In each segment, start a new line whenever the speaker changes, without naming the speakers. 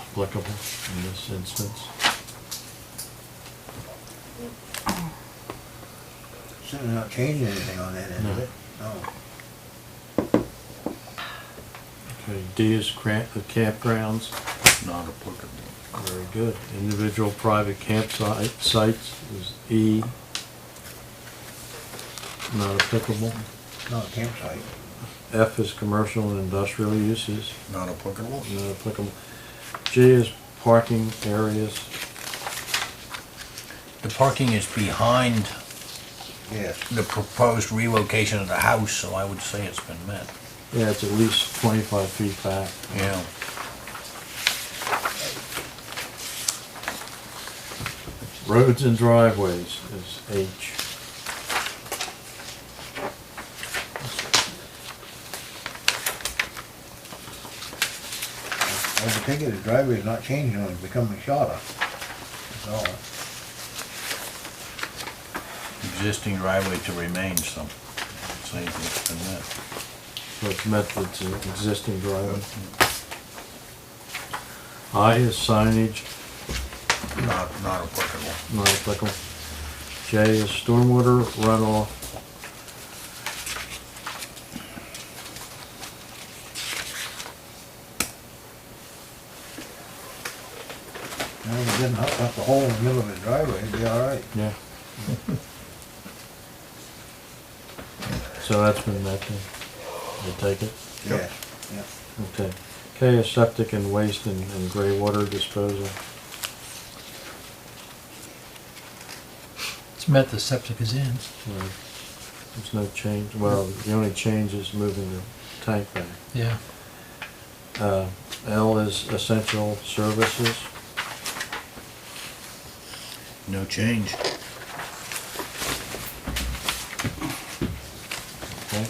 applicable in this instance.
Certainly not changing anything on that end, is
No.
it? No.
Okay, D is cramp, the campgrounds,
Not applicable.
very good. Individual private campsite, sites is E. Not applicable.
No campsite.
F is commercial and industrial uses,
Not applicable?
not applicable. G is parking areas,
The parking is behind
Yes.
the proposed relocation of the house, so I would say it's been met.
yeah, it's at least twenty-five feet back.
Yeah.
Roads and driveways is H.
I was thinking the driveway is not changing, it's becoming shorter. That's all.
Existing driveway to remain, so I'd say it's been met.
So it's met that's an existing driveway. I is signage,
Not, not applicable.
not applicable. J is stormwater runoff.
Now, if it didn't hook up the hole in the middle of the driveway, it'd be all right.
Yeah. So that's been met then, you take it?
Yes, yeah.
Okay. K is septic and waste and, and gray water disposal.
It's met, the septic is in.
Right. There's no change, well, the only change is moving the tank back.
Yeah.
Uh, L is essential services.
No change.
Okay.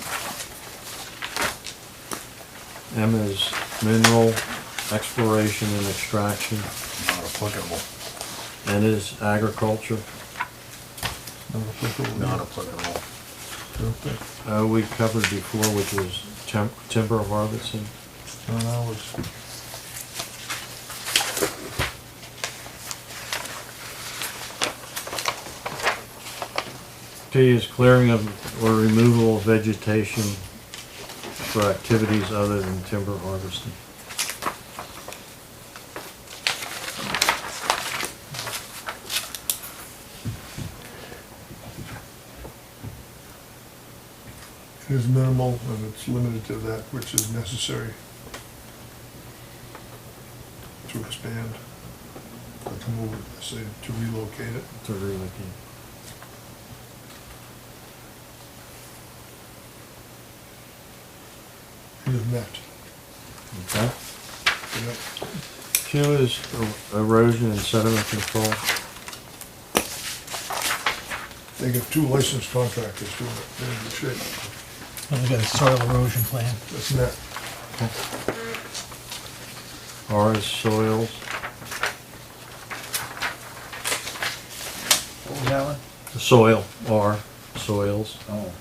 M is mineral exploration and extraction.
Not applicable.
N is agriculture.
Not applicable.
Not applicable.
Okay.
Uh, we covered before, which was tem- timber harvesting.
No, that was-
P is clearing of or removal of vegetation for activities other than timber harvesting.
It is minimal and it's limited to that which is necessary to expand, or to move, it, say, to relocate it.
to relocate.
It is met.
Okay?
Yep.
Q is er- erosion and sediment control.
They got two licensed contractors doing it. They're in good shape.
Well, we got a soil erosion plan.
That's net.
R is soils.
What was that one?
Soil, R, soils.
Oh.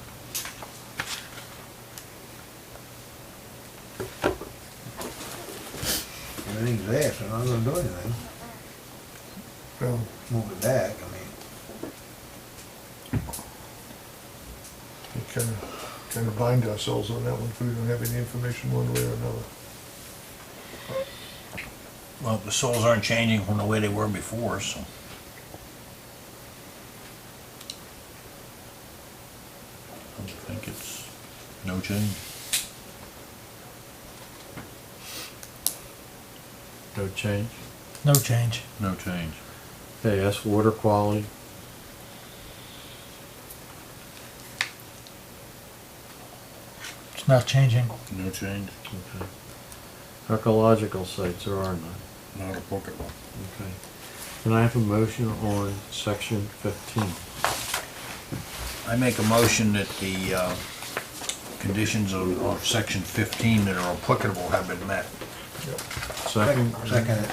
Everything's there, so I'm not gonna do anything.
Well,
Move it back, I mean.
we kind of, kind of bind ourselves on that one because we don't have any information one way or another.
Well, the soils aren't changing from the way they were before, so. I think it's no change.
No change.
No change.
No change.
Okay, S, water quality.
It's not changing.
No change.
Okay. Archaeological sites, there are none.
Not applicable.
Okay. Can I have a motion on section fifteen?
I make a motion that the uh, conditions of of section 15 that are applicable have been met.
Second?
Second it.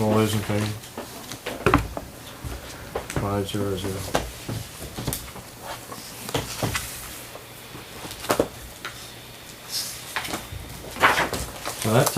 All those in favor? Five zero zero. So that's